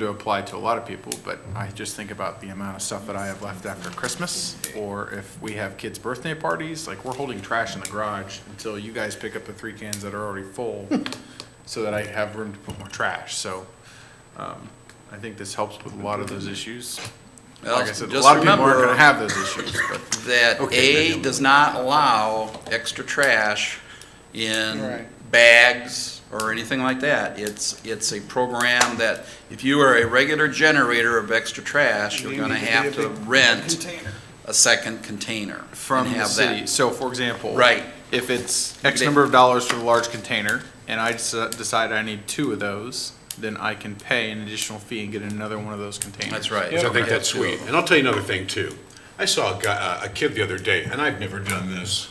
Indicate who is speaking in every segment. Speaker 1: to apply to a lot of people, but I just think about the amount of stuff that I have left after Christmas, or if we have kids' birthday parties, like, we're holding trash in the garage until you guys pick up the three cans that are already full, so that I have room to put more trash, so, um, I think this helps with a lot of those issues.
Speaker 2: Well,
Speaker 1: Like I said, a
Speaker 2: just
Speaker 1: lot of people aren't
Speaker 2: remember-
Speaker 1: gonna have those issues, but,
Speaker 2: that
Speaker 1: Okay,
Speaker 2: A
Speaker 1: maybe.
Speaker 2: does not allow extra trash in
Speaker 3: Right.
Speaker 2: bags or anything like that. It's, it's a program that if you are a regular generator of extra trash, you're
Speaker 3: You
Speaker 2: gonna
Speaker 3: need to
Speaker 2: have
Speaker 3: be
Speaker 2: to
Speaker 3: a big
Speaker 2: rent
Speaker 3: Container.
Speaker 2: a second container. and
Speaker 1: from the
Speaker 2: have
Speaker 1: city,
Speaker 2: that.
Speaker 1: so for example.
Speaker 2: Right.
Speaker 1: If it's X number of dollars for the large container, and I deci- decide I need two of those, then I can pay an additional fee and get another one of those containers.
Speaker 2: That's right.
Speaker 4: Which I think that's sweet. And I'll tell you another thing too. I saw a guy, a kid the other day, and I've never done this.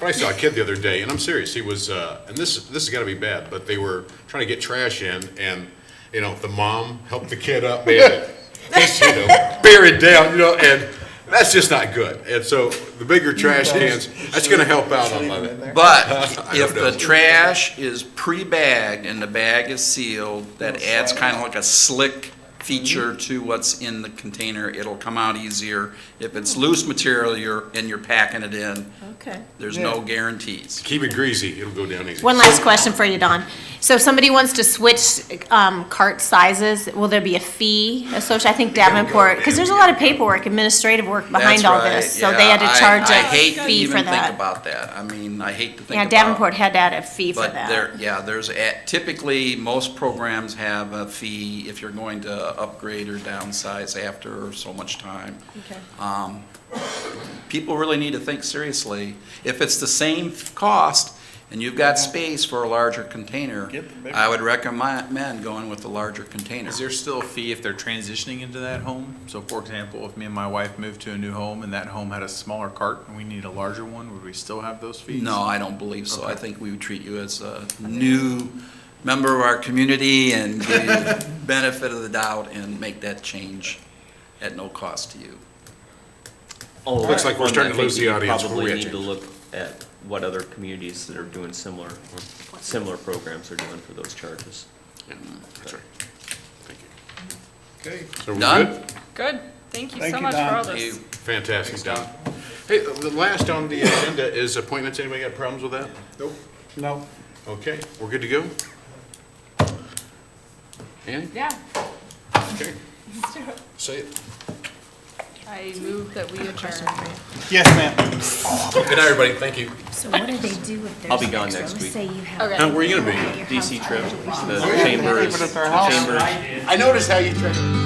Speaker 4: But I saw a kid the other day, and I'm serious, he was, uh, and this, this has gotta be bad, but they were trying to get trash in and, you know, the mom helped the kid up, man. and He's, you know, buried down, you know, and that's just not good. And so the bigger trash cans, that's gonna help out on that.
Speaker 2: But if
Speaker 4: don't know.
Speaker 2: the trash is pre-bagged and the bag is sealed, that adds kind of like a slick feature
Speaker 5: Mm-hmm.
Speaker 2: to what's in the container. It'll come out easier. If it's loose material, you're, and you're packing it in,
Speaker 5: Okay.
Speaker 2: there's no guarantees.
Speaker 4: Keep it greasy, it'll go down easy.
Speaker 5: One last question for you, Don. So if somebody wants to switch um, cart sizes, will there be a fee associated? I think Davenport, because there's a lot of paperwork, administrative work behind
Speaker 2: That's
Speaker 5: all
Speaker 2: right,
Speaker 5: this. So they had
Speaker 2: yeah. I-
Speaker 5: to charge
Speaker 2: I
Speaker 5: a
Speaker 2: hate to
Speaker 5: fee for
Speaker 2: even think
Speaker 5: that.
Speaker 2: about that. I mean, I hate to think about.
Speaker 5: Yeah, Davenport had to add a fee for
Speaker 2: But there,
Speaker 5: that.
Speaker 2: yeah, there's, a- typically, most programs have a fee if you're going to upgrade or downsize after so much time.
Speaker 5: Okay.
Speaker 2: Um, People really need to think seriously. If it's the same cost and you've got space for a larger container,
Speaker 3: Get the bigger.
Speaker 2: I would recommend going with the larger container.
Speaker 1: Is there still a fee if they're transitioning into that home? So for example, if me and my wife moved to a new home and that home had a smaller cart and we need a larger one, would we still have those fees?
Speaker 2: No, I don't believe so. I
Speaker 1: Okay.
Speaker 2: think we would treat you as a new member of our community and give you the benefit of the doubt and make that change at no cost to you.
Speaker 4: Oh, Looks like we're starting to lose the audience. What we
Speaker 6: Probably
Speaker 4: got,
Speaker 6: need to
Speaker 4: James?
Speaker 6: look at what other communities that are doing similar, similar programs are doing for those charges.
Speaker 4: That's right. Thank you.
Speaker 3: Okay.
Speaker 4: So we're
Speaker 2: Done?
Speaker 4: good?
Speaker 7: Good, thank you
Speaker 3: Thank
Speaker 7: so
Speaker 3: you,
Speaker 7: much for
Speaker 3: Don.
Speaker 7: all
Speaker 2: You-
Speaker 7: this.
Speaker 4: Fantastic, Don. Hey, the last on the agenda is appointments. Anybody got problems with that?
Speaker 3: No.
Speaker 4: Okay, we're good to go? Annie?
Speaker 7: Yeah,
Speaker 4: Okay. Say it.
Speaker 7: I move that we adjourn.
Speaker 3: Yes, ma'am.
Speaker 4: Good night, everybody. Thank you.
Speaker 8: So what do they do if there's?
Speaker 6: I'll be gone
Speaker 8: extra?
Speaker 6: next
Speaker 8: Let's
Speaker 6: week.
Speaker 8: Say you have.
Speaker 7: Okay.
Speaker 4: Now, where are you gonna be?
Speaker 8: Your house
Speaker 6: DC trip,
Speaker 8: already.
Speaker 6: the chambers,
Speaker 3: Leave it at their
Speaker 6: the
Speaker 3: house.
Speaker 6: chambers.
Speaker 4: I noticed how you tried to.